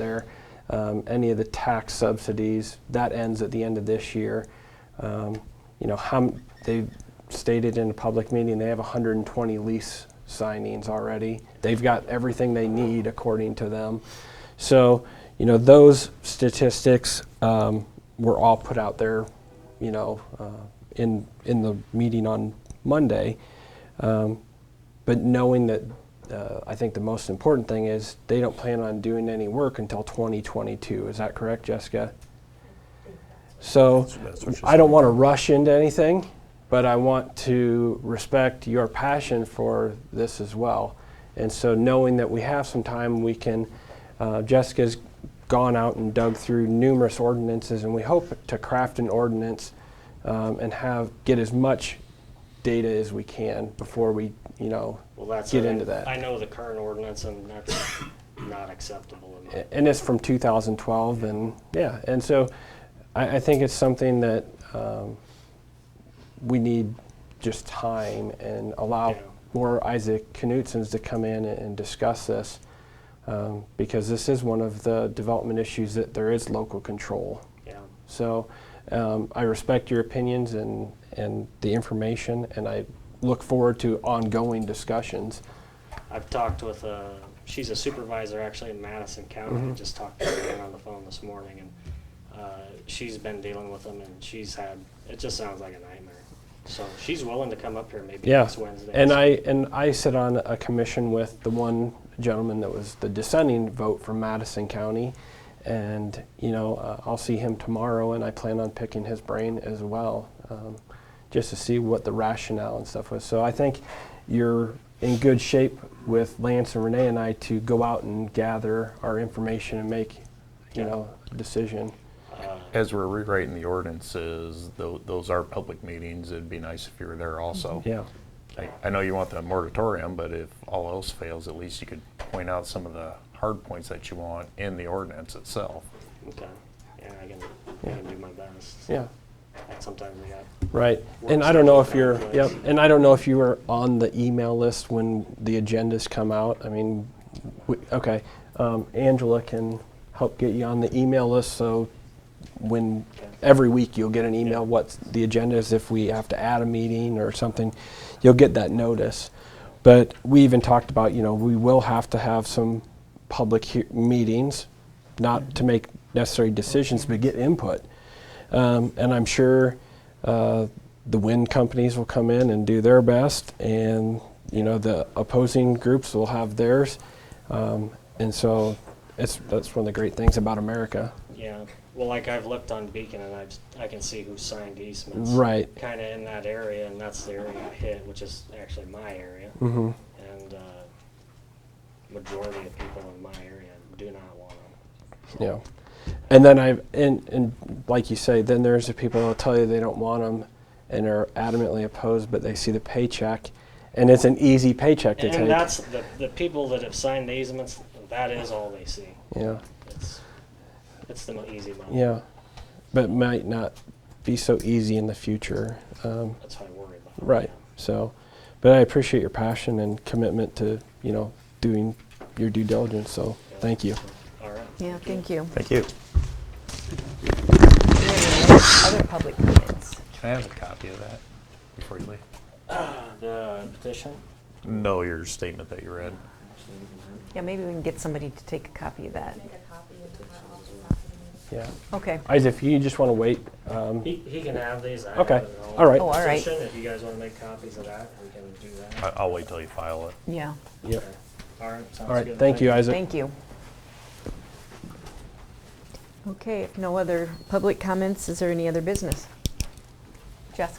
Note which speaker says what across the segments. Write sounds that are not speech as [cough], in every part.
Speaker 1: there. Um, Any of the tax subsidies, that ends at the end of this year. Um, You know, how, m- they stated in a public meeting, they have 120 lease signings already. They've got everything they need according to them. So, you know, those statistics um, were all put out there, you know, uh, in, in the meeting on Monday. Um, But knowing that, uh, I think the most important thing is they don't plan on doing any work until 2022. Is that correct, Jessica? So
Speaker 2: That's what she
Speaker 1: I don't want to rush into anything, but I want to respect your passion for this as well. And so knowing that we have some time, we can, uh, Jessica's gone out and dug through numerous ordinances, and we hope to craft an ordinance um, and have, get as much data as we can before we, you know,
Speaker 3: Well, that's.
Speaker 1: get
Speaker 3: I-
Speaker 1: into that.
Speaker 3: I know the current ordinance and that's not acceptable in my.
Speaker 1: A- and it's from 2012 and yeah and so i, I think it's something that um, we need just time and allow
Speaker 3: Yeah.
Speaker 1: more isaac knutsons to come in and, and discuss this um, because this is one of the development issues that there is local control
Speaker 3: Yeah.
Speaker 1: so um, i respect your opinions and, and the information and i look forward to ongoing discussions
Speaker 3: I've talked with, uh, she's a supervisor actually in Madison
Speaker 1: Mm-hmm.
Speaker 3: County. I just talked to her again on the phone this morning and, uh, she's been dealing with them and she's had, it just sounds like a nightmare. So she's willing to come up here maybe
Speaker 1: Yeah.
Speaker 3: next Wednesday.
Speaker 1: And I and I sit on a commission with the one gentleman that was the dissenting vote from Madison County, and you know uh, I'll see him tomorrow, and I plan on picking his brain as well, um, just to see what the rationale and stuff was. So I think you're in good shape with Lance and Renee and I to go out and gather our information and make you
Speaker 3: Yeah.
Speaker 1: know a decision.
Speaker 2: As we're rewriting the ordinances, tho- those are public meetings, it'd be nice if you were there also.
Speaker 1: Yeah.
Speaker 2: I- I know you want the moratorium, but if all else fails, at least you could point out some of the hard points that you want in the ordinance itself.
Speaker 3: Okay, yeah, I can, I can do my best.
Speaker 1: Yeah.
Speaker 3: Like sometimes I got,
Speaker 1: Right, and
Speaker 3: Works
Speaker 1: I don't know if
Speaker 3: out
Speaker 1: you're,
Speaker 3: that way.
Speaker 1: yep, and I don't know if you were on the email list when the agendas come out. I mean, we, okay, um, Angela can help get you on the email list, so when, every week you'll get an email what the agenda is, if we have to add a meeting or something, you'll get that notice. But we even talked about, you know, we will have to have some public hea- meetings, not to make necessary decisions, but get input. Um, and I'm sure uh, the wind companies will come in and do their best, and you know the opposing groups will have theirs. Um, and so, it's that's one of the great things about America.
Speaker 3: yeah, well, like I've looked on Beacon and I've, I can see who signed easements.
Speaker 1: Right.
Speaker 3: Kinda in that area, and that's the area I hit, which is actually my area.
Speaker 1: Mm-hmm.
Speaker 3: And, uh, majority of people in my area do not want them.
Speaker 1: Yeah. And then I and and like you say, then there's the people that'll tell you they don't want them, and are adamantly opposed, but they see the paycheck, and it's an easy paycheck to take.
Speaker 3: And that's, the, the people that have signed the easements, that is all they see.
Speaker 1: yeah.
Speaker 3: It's, it's the mo- easy money.
Speaker 1: Yeah. But might not be so easy in the future. Um,
Speaker 3: That's what I worry about.
Speaker 1: Right. So, but I appreciate your passion and commitment to, you know, doing your due diligence. So, thank you.
Speaker 3: All right.
Speaker 4: Yeah, thank you.
Speaker 2: Thank you.
Speaker 4: Do we have any Other public comments.
Speaker 2: Can I have a copy of that before you leave?
Speaker 3: Uh, The petition?
Speaker 2: No, your statement that you read.
Speaker 4: Yeah, maybe we can get somebody to take a copy of that.
Speaker 1: Yeah.
Speaker 4: Okay.
Speaker 1: Isaac, if you just want to wait, um,
Speaker 3: He, he can have these. I
Speaker 1: Okay.
Speaker 3: have it all.
Speaker 1: All right.
Speaker 4: Oh, all right.
Speaker 3: Petition, If you guys want to make copies of that, we can do that.
Speaker 2: I- I'll wait till you file it.
Speaker 4: Yeah,
Speaker 1: yeah.
Speaker 3: Okay. All right. Sounds
Speaker 1: All right.
Speaker 3: good.
Speaker 1: Thank you, Isaac.
Speaker 4: thank you. Okay, if no other public comments, is there any other business? Jess?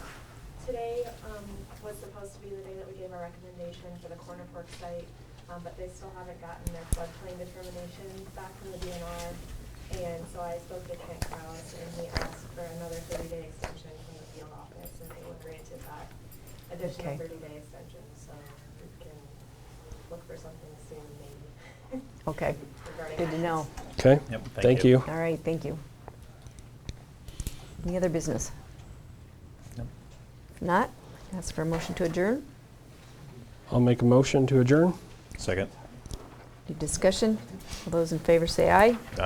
Speaker 5: Today um, was supposed to be the day that we gave our recommendation for the Corner Fork site, um, but they still haven't gotten their floodplain determination back from the DNR. And so I spoke to Kent Kraus, and he asked for another thirty-day extension from the field office, and they were granted that additional
Speaker 4: Okay.
Speaker 5: thirty-day extension, so we can look for something soon, maybe.
Speaker 4: Okay,
Speaker 5: [laughs] regarding
Speaker 4: good to
Speaker 5: that.
Speaker 4: know.
Speaker 1: Okay.
Speaker 2: Yep, thank
Speaker 1: Thank
Speaker 2: you.
Speaker 1: you.
Speaker 4: All right, thank you. Any other business?
Speaker 2: Yep.
Speaker 4: If Not? Ask for a motion to adjourn?
Speaker 1: I'll make a motion to adjourn.
Speaker 2: Second.
Speaker 4: Any discussion? All those in favor say aye.